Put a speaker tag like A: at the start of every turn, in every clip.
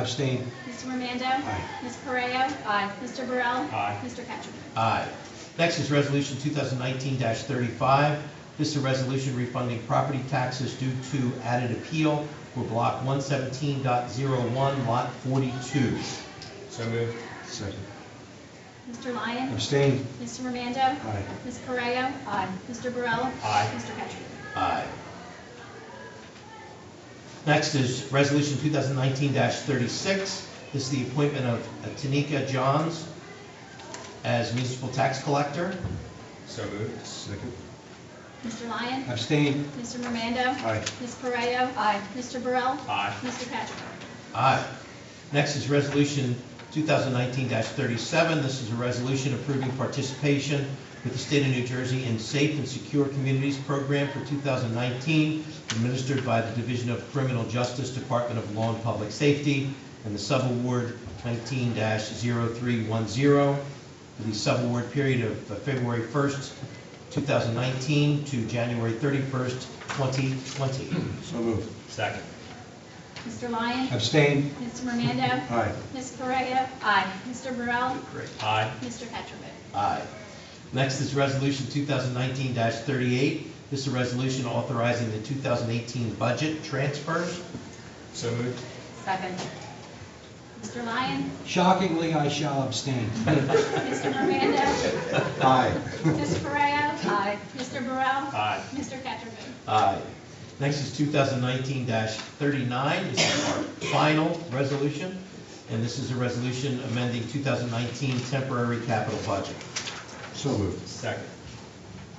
A: Abstain.
B: Mr. Romando?
A: Aye.
B: Ms. Correa? Aye. Mr. Burrell?
A: Aye.
B: Mr. Cattrick?
C: Aye. Next is Resolution 2019-35. This is a resolution refunding property taxes due to added appeal for Block 117.01, Lot 42.
A: So moved. Second.
B: Mr. Lyon?
A: Abstain.
B: Mr. Romando?
A: Aye.
B: Ms. Correa? Aye. Mr. Burrell?
A: Aye.
B: Mr. Cattrick?
C: Aye. Next is Resolution 2019-36. This is the appointment of Tanika Johns as municipal tax collector.
A: So moved. Second.
B: Mr. Lyon?
A: Abstain.
B: Mr. Romando?
A: Aye.
B: Ms. Correa? Aye. Mr. Burrell?
A: Aye.
B: Mr. Cattrick?
C: Aye. Next is Resolution 2019-37. This is a resolution approving participation with the state of New Jersey in Safe and Secure Communities Program for 2019, administered by the Division of Criminal Justice, Department of Law and Public Safety, and the subaward 19-0310, for the subaward period of uh, February 1st, 2019 to January 31st, 2020.
A: So moved. Second.
B: Mr. Lyon?
A: Abstain.
B: Mr. Romando?
A: Aye.
B: Ms. Correa? Aye. Mr. Burrell?
C: Great.
A: Aye.
B: Mr. Cattrick?
C: Aye. Next is Resolution 2019-38. This is a resolution authorizing the 2018 budget transfers.
A: So moved.
B: Second. Mr. Lyon?
D: Shockingly, I shall abstain.
B: Mr. Romando?
A: Aye.
B: Ms. Correa? Aye. Mr. Burrell?
A: Aye.
B: Mr. Cattrick?
C: Aye. Next is 2019-39. This is our final resolution, and this is a resolution amending 2019 temporary capital budget.
A: So moved. Second.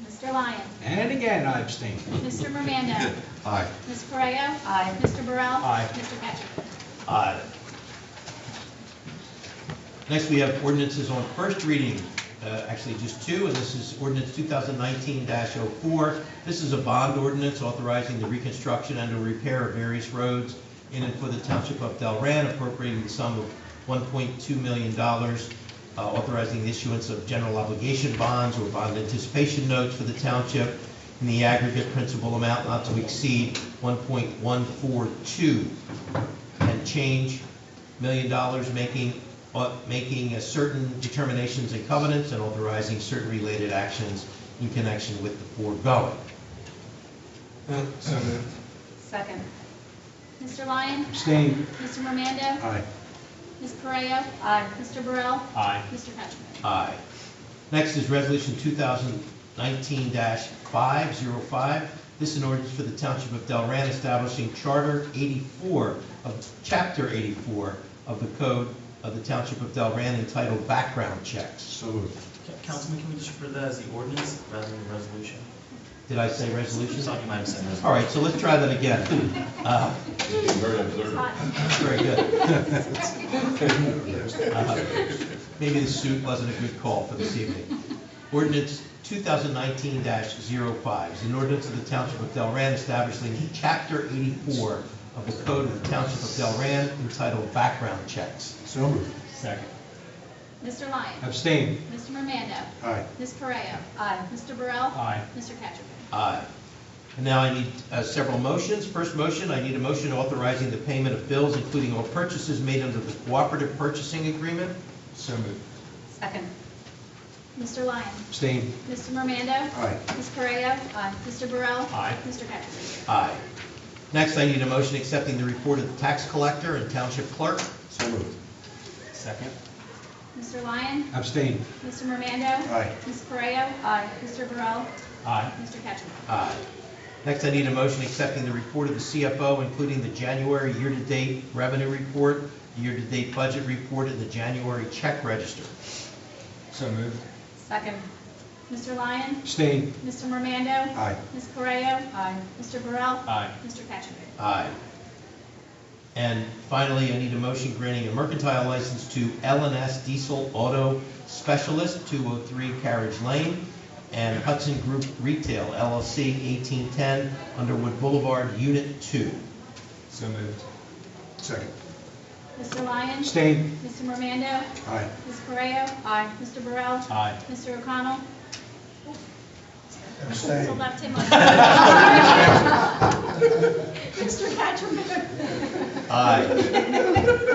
B: Mr. Lyon?
D: And again, I abstain.
B: Mr. Romando?
A: Aye.
B: Ms. Correa? Aye. Mr. Burrell?
A: Aye.
B: Mr. Cattrick?
C: Aye. Uh, Next, we have ordinances on first reading, uh, actually just two, and this is ordinance 2019-04. This is a bond ordinance authorizing the reconstruction and or repair of various roads in and for the township of Delran, appropriating the sum of $1.2 million, uh, authorizing the issuance of general obligation bonds or bond anticipation notes for the township in the aggregate principal amount not to exceed 1.142 and change million dollars, making, uh, making a certain determinations and covenants and authorizing certain related actions in connection with the foregoing.
A: So moved.
B: Second. Mr. Lyon?
D: Abstain.
B: Mr. Romando?
A: Aye.
B: Ms. Correa? Aye. Mr. Burrell?
A: Aye.
B: Mr. Cattrick?
C: Aye. Next is Resolution 2019-505. This is an ordinance for the Township of Delran establishing Charter 84 of, Chapter 84 of the Code of the Township of Delran entitled Background Checks.
A: So moved.
E: Ca- Councilman, can we just refer that as the ordinance rather than the resolution?
C: Did I say resolution?
E: Just like you might have said resolution.
C: All right, so let's try that again. Uh,
F: Very observant.
C: Very good.
A: Yes.
C: Uh, Maybe the suit wasn't a good call for this evening. Ordinance 2019-05 is an ordinance of the Township of Delran establishing Chapter 84 of the Code of the Township of Delran entitled Background Checks.
A: So moved. Second.
B: Mr. Lyon?
D: Abstain.
B: Mr. Romando?
A: Aye.
B: Ms. Correa? Aye. Mr. Burrell?
A: Aye.
B: Mr. Cattrick?
C: Aye. And now I need uh, several motions. First motion, I need a motion authorizing the payment of bills, including all purchases made under the Cooperative Purchasing Agreement.
A: So moved.
B: Second. Mr. Lyon?
D: Abstain.
B: Mr. Romando?
A: Aye.
B: Ms. Correa? Aye. Mr. Burrell?
A: Aye.
B: Mr. Cattrick?
C: Aye. Next, I need a motion accepting the report of the tax collector and township clerk.
A: So moved. Second.
B: Mr. Lyon?
D: Abstain.
B: Mr. Romando?
A: Aye.
B: Ms. Correa? Aye. Mr. Burrell?
A: Aye.
B: Mr. Cattrick?
C: Aye. Next, I need a motion accepting the report of the CFO, including the January year-to-date revenue report, the year-to-date budget report, and the January check register.
A: So moved.
B: Second. Mr. Lyon?
D: Abstain.
B: Mr. Romando?
A: Aye.
B: Ms. Correa? Aye. Mr. Burrell?
A: Aye.
B: Mr. Cattrick?
C: Aye. And finally, I need a motion granting a mercantile license to LNS Diesel Auto Specialist, 203 Carriage Lane, and Hudson Group Retail LLC, 1810 Underwood Boulevard, Unit 2.
A: So moved. Second.
B: Mr. Lyon?
D: Abstain.
B: Mr. Romando?
A: Aye.
B: Ms. Correa? Aye. Mr. Burrell?
A: Aye.
B: Mr. O'Connell? So
A: Abstain.
B: left him on. Mr. Cattrick?
C: Aye.